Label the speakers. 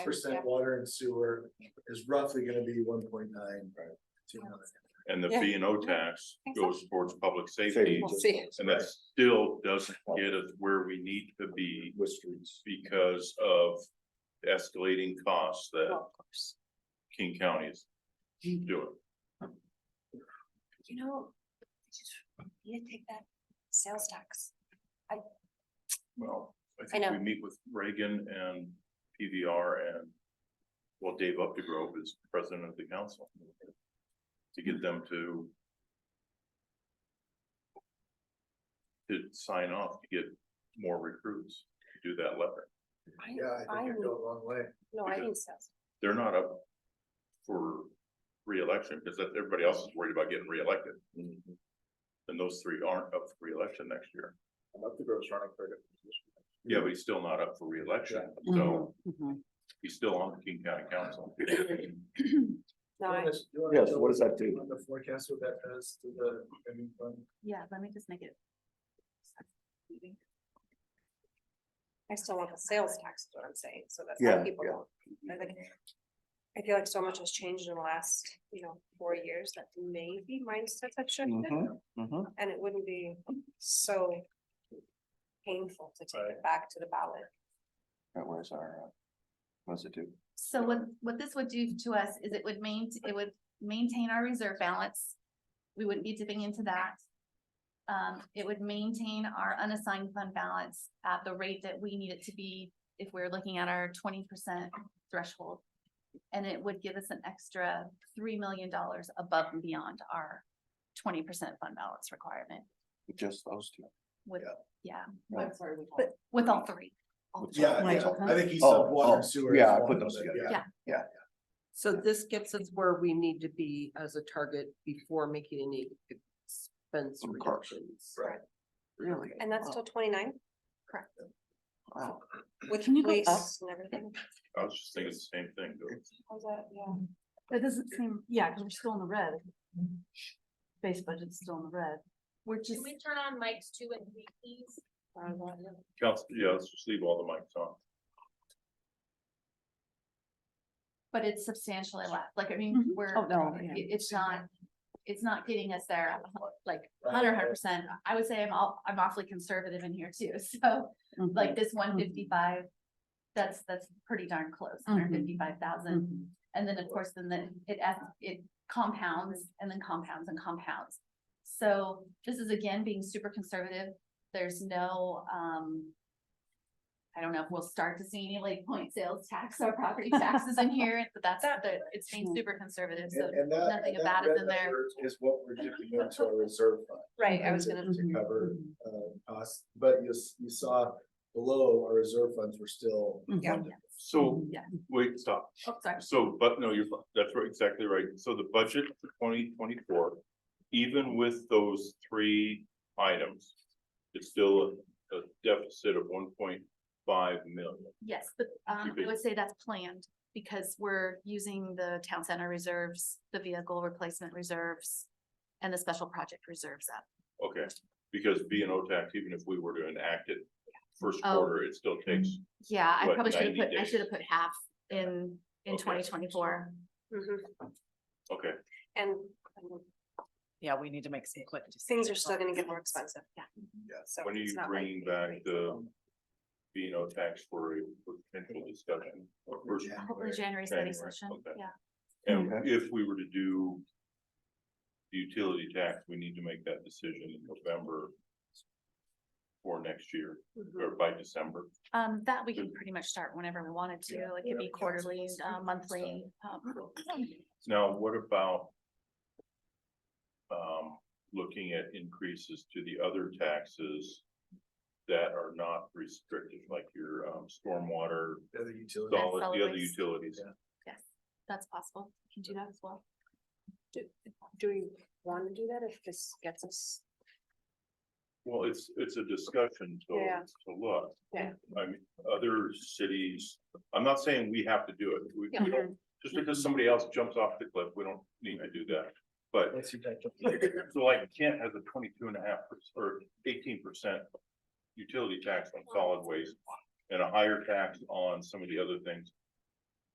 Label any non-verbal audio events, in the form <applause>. Speaker 1: percent water and sewer is roughly gonna be one point nine. Two million.
Speaker 2: And the
Speaker 3: Yeah.
Speaker 2: B and O tax goes towards public safety,
Speaker 4: Safety.
Speaker 3: We'll see.
Speaker 2: and that still doesn't get us where we need to be
Speaker 4: with streets.
Speaker 2: because of escalating costs that
Speaker 3: Well, Mm-hmm. of course.
Speaker 2: King County is doing.
Speaker 3: You know, I just need to take that sales tax.
Speaker 2: Well, I
Speaker 3: I
Speaker 2: think
Speaker 3: know.
Speaker 2: we meet with Reagan and PVR and well, Dave Updegrove is president of the council to get them to to sign off to get more recruits, to do that letter.
Speaker 3: I-
Speaker 1: Yeah, I
Speaker 3: I
Speaker 1: think
Speaker 3: would-
Speaker 1: it'd go a long way.
Speaker 3: No, I
Speaker 2: because-
Speaker 3: think sales.
Speaker 2: They're not up for reelection because that- everybody else is worried about getting reelected.
Speaker 4: Mm-hmm.
Speaker 2: And those three aren't up for reelection next year.
Speaker 4: I'm up to gross running for a different position.
Speaker 2: Yeah, but he's still not up for reelection, so he's still on the King County Council.
Speaker 3: No, I,
Speaker 4: Yes, what does that do?
Speaker 1: On the forecast, what that does to the, I mean, fund?
Speaker 5: Yeah, let me just make it.
Speaker 3: I still want the sales tax, is what I'm saying, so that's how
Speaker 4: Yeah,
Speaker 3: people
Speaker 4: yeah.
Speaker 3: don't. I think- I feel like so much has changed in the last, you know, four years that maybe mindsets have
Speaker 1: Mm-hmm.
Speaker 3: shifted, and it wouldn't be so painful to take it back to the ballot.
Speaker 4: where's our, uh, what's it do?
Speaker 5: So what, what this would do to us is it would main, it would maintain our reserve balance. We wouldn't be dipping into that. Um, it would maintain our unassigned fund balance at the rate that we need it to be if we're looking at our twenty percent threshold. And it would give us an extra three million dollars above and beyond our twenty percent fund balance requirement
Speaker 4: Just those two.
Speaker 5: with,
Speaker 1: Yeah.
Speaker 5: yeah,
Speaker 4: Right.
Speaker 5: but with all three.
Speaker 1: Yeah,
Speaker 4: Right.
Speaker 1: yeah, I think he's
Speaker 4: Oh,
Speaker 1: said water
Speaker 4: oh,
Speaker 1: and sewer.
Speaker 4: yeah,
Speaker 1: is
Speaker 4: I
Speaker 1: one
Speaker 4: put
Speaker 1: of
Speaker 4: those
Speaker 1: them,
Speaker 4: together.
Speaker 1: yeah.
Speaker 6: So this gets us where we need to be as a target before making any expense
Speaker 4: Of course.
Speaker 6: reductions.
Speaker 1: Right.
Speaker 4: Really? Oh,
Speaker 3: And that's till twenty-nine
Speaker 4: Wow.
Speaker 3: with
Speaker 5: Can you go up?
Speaker 3: police and everything.
Speaker 2: I was just thinking the same thing. though.
Speaker 3: How's that? Yeah.
Speaker 5: That doesn't seem, yeah, because we're still in the red.
Speaker 7: Mm-hmm.
Speaker 5: Base budget's still in the red. We're just.
Speaker 8: Can we turn on mics two and three, please?
Speaker 2: Council, yeah, let's just leave all the mics on.
Speaker 5: But it's substantially less, like, I mean, we're,
Speaker 7: Oh, no,
Speaker 5: it-
Speaker 7: yeah.
Speaker 5: it's not, it's not getting us there, like,
Speaker 1: Right.
Speaker 5: hundred, hundred percent. I would say I'm all, I'm awfully conservative in here too, <laughs> so,
Speaker 7: Mm-hmm.
Speaker 5: like, this one fifty-five, that's, that's pretty darn close,
Speaker 7: Mm-hmm.
Speaker 5: hundred fifty-five thousand. And then, of course, then the, it, adds- it compounds and then compounds and compounds. So this is again being super conservative. There's no, um. I don't know if we'll start to see any like point sales tax or property taxes in here, but that's, the it's being super conservative, so.
Speaker 1: And- and that-
Speaker 5: nothing
Speaker 1: and that
Speaker 5: about it
Speaker 1: red
Speaker 5: in there.
Speaker 1: number Is what we're dipping into our reserve fund.
Speaker 3: Right, I was
Speaker 1: to-
Speaker 3: gonna,
Speaker 1: To cover, uh, costs, but you, s- you saw below, our reserve funds were still. uh,
Speaker 3: Yeah.
Speaker 1: funded.
Speaker 2: So,
Speaker 5: Yeah.
Speaker 2: wait, stop.
Speaker 5: Oh, sorry.
Speaker 2: So, but no, you're, that's right, exactly right. So the budget for twenty twenty-four, even with those three items, it's still a deficit of one point five million.
Speaker 5: Yes, but um,
Speaker 2: Should be.
Speaker 5: I would say that's planned because we're using the town center reserves, the vehicle replacement reserves. And the special project reserves up.
Speaker 2: Okay, because B and O tax, even if we were to enact it first
Speaker 5: Oh.
Speaker 2: quarter, it still takes,
Speaker 5: Yeah, I
Speaker 2: What,
Speaker 5: probably should have
Speaker 2: 90
Speaker 5: put, I
Speaker 2: days?
Speaker 5: should have put half in, in
Speaker 2: Okay.
Speaker 5: twenty twenty-four.
Speaker 3: mhm.
Speaker 2: okay.
Speaker 3: and um,
Speaker 7: Yeah, we need to make some quick.
Speaker 3: things are still gonna get more expensive, yeah.
Speaker 1: Yeah.
Speaker 3: So
Speaker 2: When are
Speaker 3: it's
Speaker 2: you
Speaker 3: not like
Speaker 2: bringing
Speaker 3: we
Speaker 2: back
Speaker 3: agree.
Speaker 2: the B and O tax for a potential discussion? or first-
Speaker 1: Yeah.
Speaker 5: Hopefully January study
Speaker 2: January,
Speaker 5: session,
Speaker 2: okay.
Speaker 5: yeah.
Speaker 2: And
Speaker 4: Okay.
Speaker 2: if we were to do the utility tax, we need to make that decision in November for next year,
Speaker 3: Mhm.
Speaker 2: or by December.
Speaker 5: Um, that we
Speaker 2: Hmm.
Speaker 5: can pretty much start whenever we wanted to,
Speaker 1: Yeah,
Speaker 5: it could
Speaker 1: whatever
Speaker 5: be
Speaker 1: counts.
Speaker 5: quarterly, uh, monthly, um, <clears throat>
Speaker 2: Now, what about um, looking at increases to the other taxes that are not restricted, like your um, stormwater,
Speaker 1: The Other utilities.
Speaker 2: solid, the
Speaker 5: solid
Speaker 2: other
Speaker 5: waste.
Speaker 2: utilities?
Speaker 5: yes, that's possible, we can do that as well.
Speaker 3: Do we wanna do that if this gets us?
Speaker 2: Well, it's, it's a discussion to,
Speaker 3: Yeah.
Speaker 2: to look.
Speaker 3: Yeah.
Speaker 2: I mean, other cities, I'm not saying we have to do it, we, we
Speaker 3: Yeah.
Speaker 2: don't, just because somebody else jumps off the cliff, we don't need to do that. But,
Speaker 1: Once you touch up-
Speaker 2: so like Kent has a twenty-two and a half perc- or eighteen percent utility tax on solid waste and a higher tax on some of the other things.